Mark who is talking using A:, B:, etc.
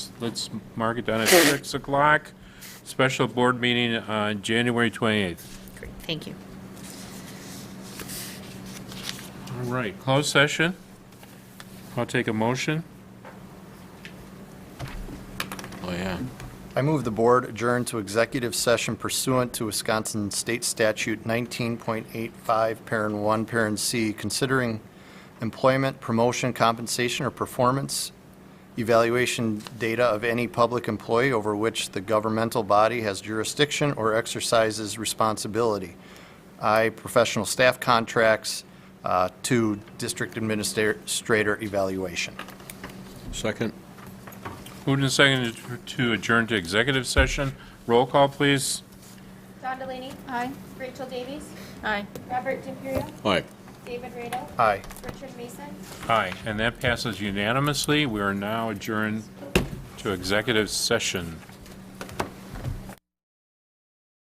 A: let's mark it down at 6 o'clock. Special board meeting on January 28th.
B: Great, thank you.
A: All right, closed session. I'll take a motion.
C: Oh, yeah.
D: I move the board adjourn to executive session pursuant to Wisconsin State Statute 19.85, Parent 1, Parent C, considering employment, promotion, compensation, or performance evaluation data of any public employee over which the governmental body has jurisdiction or exercises responsibility. I, professional staff contracts, uh, to district administrator evaluation.
C: Second?
A: Moved and seconded to adjourn to executive session. Roll call, please.
E: Don Delaney. Aye. Rachel Davies.
B: Aye.
E: Robert DiPiero.
C: Aye.
E: David Radel.
D: Aye.
E: Richard Mason.
A: Aye, and that passes unanimously. We are now adjourned to executive session.